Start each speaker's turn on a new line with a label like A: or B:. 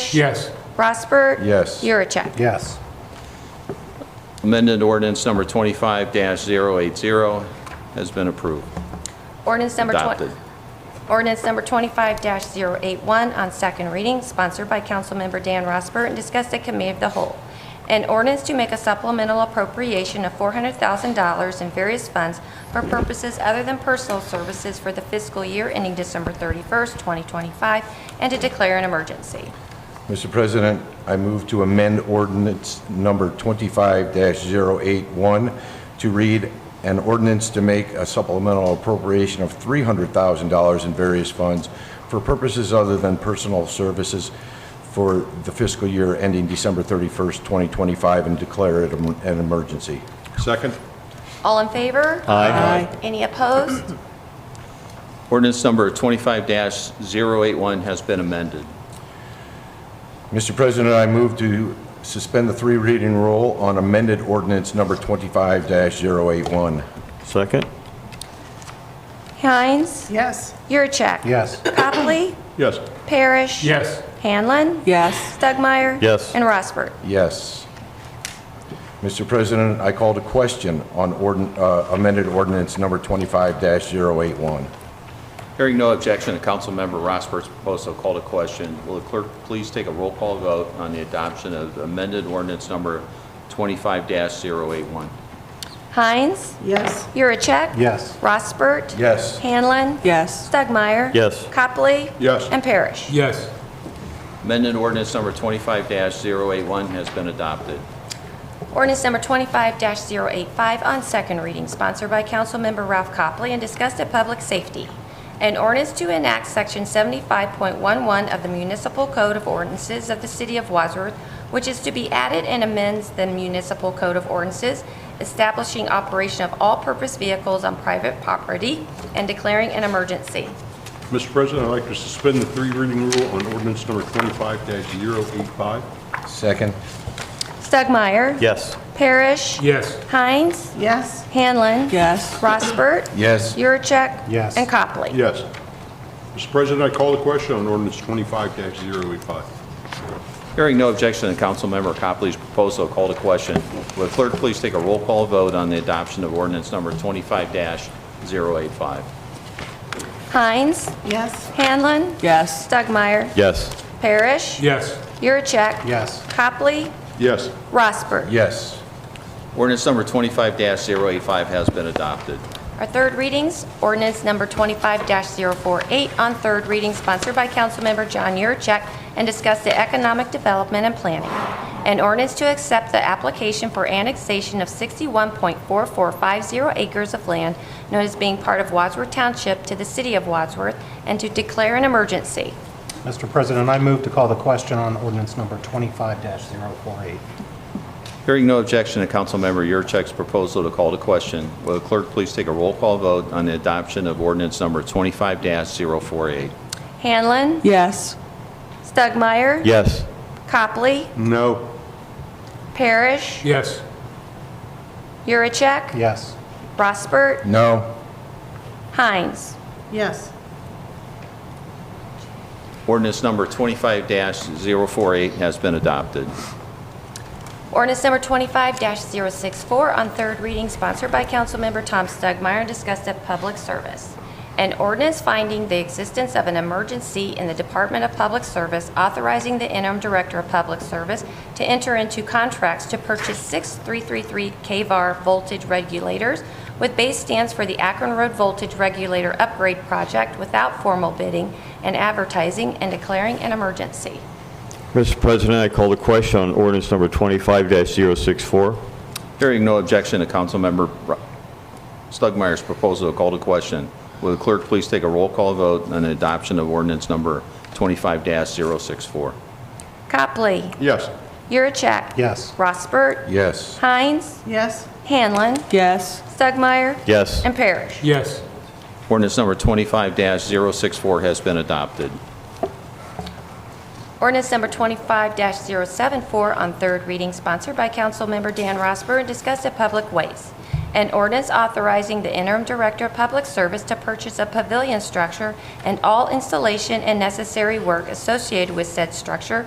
A: Bush?
B: Yes.
A: Rossbert?
C: Yes.
A: Yuracek?
B: Yes.
D: Amended ordinance number 25-080 has been approved.
A: Ordinance number 20...
D: Adopted.
A: Ordinance number 25-081 on second reading, sponsored by Councilmember Dan Rosberg and discussed at Committee of the Whole. An ordinance to make a supplemental appropriation of $400,000 in various funds for purposes other than personal services for the fiscal year ending December 31st, 2025, and to declare an emergency.
C: Mr. President, I move to amend ordinance number 25-081 to read an ordinance to make a supplemental appropriation of $300,000 in various funds for purposes other than personal services for the fiscal year ending December 31st, 2025, and declare it em- an emergency.
E: Second?
A: All in favor? Aye. Any opposed?
D: Ordinance number 25-081 has been amended.
C: Mr. President, I move to suspend the three reading rule on amended ordinance number 25-081.
F: Second?
A: Hines?
G: Yes.
A: Yurcheck?
B: Yes.
A: Copley?
E: Yes.
A: Parrish?
B: Yes.
A: Hanlon?
G: Yes.
A: Stugmeyer?
F: Yes.
A: And Rosberg.
C: Yes. Mr. President, I called a question on ordin- uh, amended ordinance number 25-081.
D: Hearing no objection, the Councilmember Rossbert's proposal called a question. Will the clerk please take a roll call vote on the adoption of amended ordinance number 25-081?
A: Hines?
G: Yes.
A: Yuracek?
B: Yes.
A: Rossbert?
C: Yes.
A: Hanlon?
G: Yes.
A: Stugmeyer?
F: Yes.
A: Copley?
E: Yes.
A: And Parrish?
B: Yes.
D: Amended ordinance number 25-081 has been adopted.
A: Ordinance number 25-085 on second reading, sponsored by Councilmember Ralph Copley and discussed at Public Safety. An ordinance to enact Section 75.11 of the Municipal Code of Ordinances of the City of Wadsworth, which is to be added and amends the Municipal Code of Ordinances, establishing operation of all-purpose vehicles on private property and declaring an emergency.
E: Mr. President, I'd like to suspend the three reading rule on ordinance number 25-085.
C: Second?
A: Stugmeyer?
F: Yes.
A: Parrish?
B: Yes.
A: Hines?
G: Yes.
A: Hanlon?
G: Yes.
A: Rossbert?
C: Yes.
A: Yuracek?
B: Yes.
A: And Copley?
E: Yes. Mr. President, I call the question on ordinance 25-085.
D: Hearing no objection, the Councilmember Copley's proposal called a question. Will the clerk please take a roll call vote on the adoption of ordinance number 25-085?
A: Hines?
G: Yes.
A: Hanlon?
G: Yes.
A: Stugmeyer?
F: Yes.
A: Parrish?
B: Yes.
A: Yuracek?
B: Yes.
A: Copley?
E: Yes.
A: Rossbert?
C: Yes.
D: Ordinance number 25-085 has been adopted.
A: Our third readings, ordinance number 25-048 on third reading, sponsored by Councilmember John Yurcheck, and discussed the economic development and planning. An ordinance to accept the application for annexation of 61.4450 acres of land known as being part of Wadsworth Township to the city of Wadsworth, and to declare an emergency.
B: Mr. President, I move to call the question on ordinance number 25-048.
D: Hearing no objection to Councilmember Yurchek's proposal to call to question, will the clerk please take a roll call vote on the adoption of ordinance number 25-048?
A: Hanlon?
G: Yes.
A: Stugmeyer?
F: Yes.
A: Copley?
E: No.
A: Parrish?
B: Yes.
A: Yuracek?
B: Yes.
A: Rossbert?
C: No?
A: Hines?
G: Yes.
D: Ordinance number 25-048 has been adopted.
A: Ordinance number 25-064 on third reading, sponsored by Councilmember Tom Stugmeyer, and discussed at public service. An ordinance finding the existence of an emergency in the Department of Public Service authorizing the interim director of public service to enter into contracts to purchase six 333 KVAR voltage regulators with base stands for the Akron Road Voltage Regulator Upgrade Project without formal bidding and advertising and declaring an emergency.
F: Mr. President, I call the question on ordinance number 25-064.
D: Hearing no objection to Councilmember Ro- Stugmeyer's proposal to call to question, will the clerk please take a roll call vote on the adoption of ordinance number 25-064?
A: Copley.
E: Yes.
A: Yuracek.
B: Yes.
A: Rossbert.
C: Yes.
A: Hines.
G: Yes.
A: Hanlon.
G: Yes.
A: Stugmeyer.
F: Yes.
A: And Parrish.
B: Yes.
D: Ordinance number 25-064 has been adopted.
A: Ordinance number 25-074 on third reading, sponsored by Councilmember Dan Rosberg, and discussed at Public Ways. An ordinance authorizing the interim director of public service to purchase a pavilion structure and all installation and necessary work associated with said structure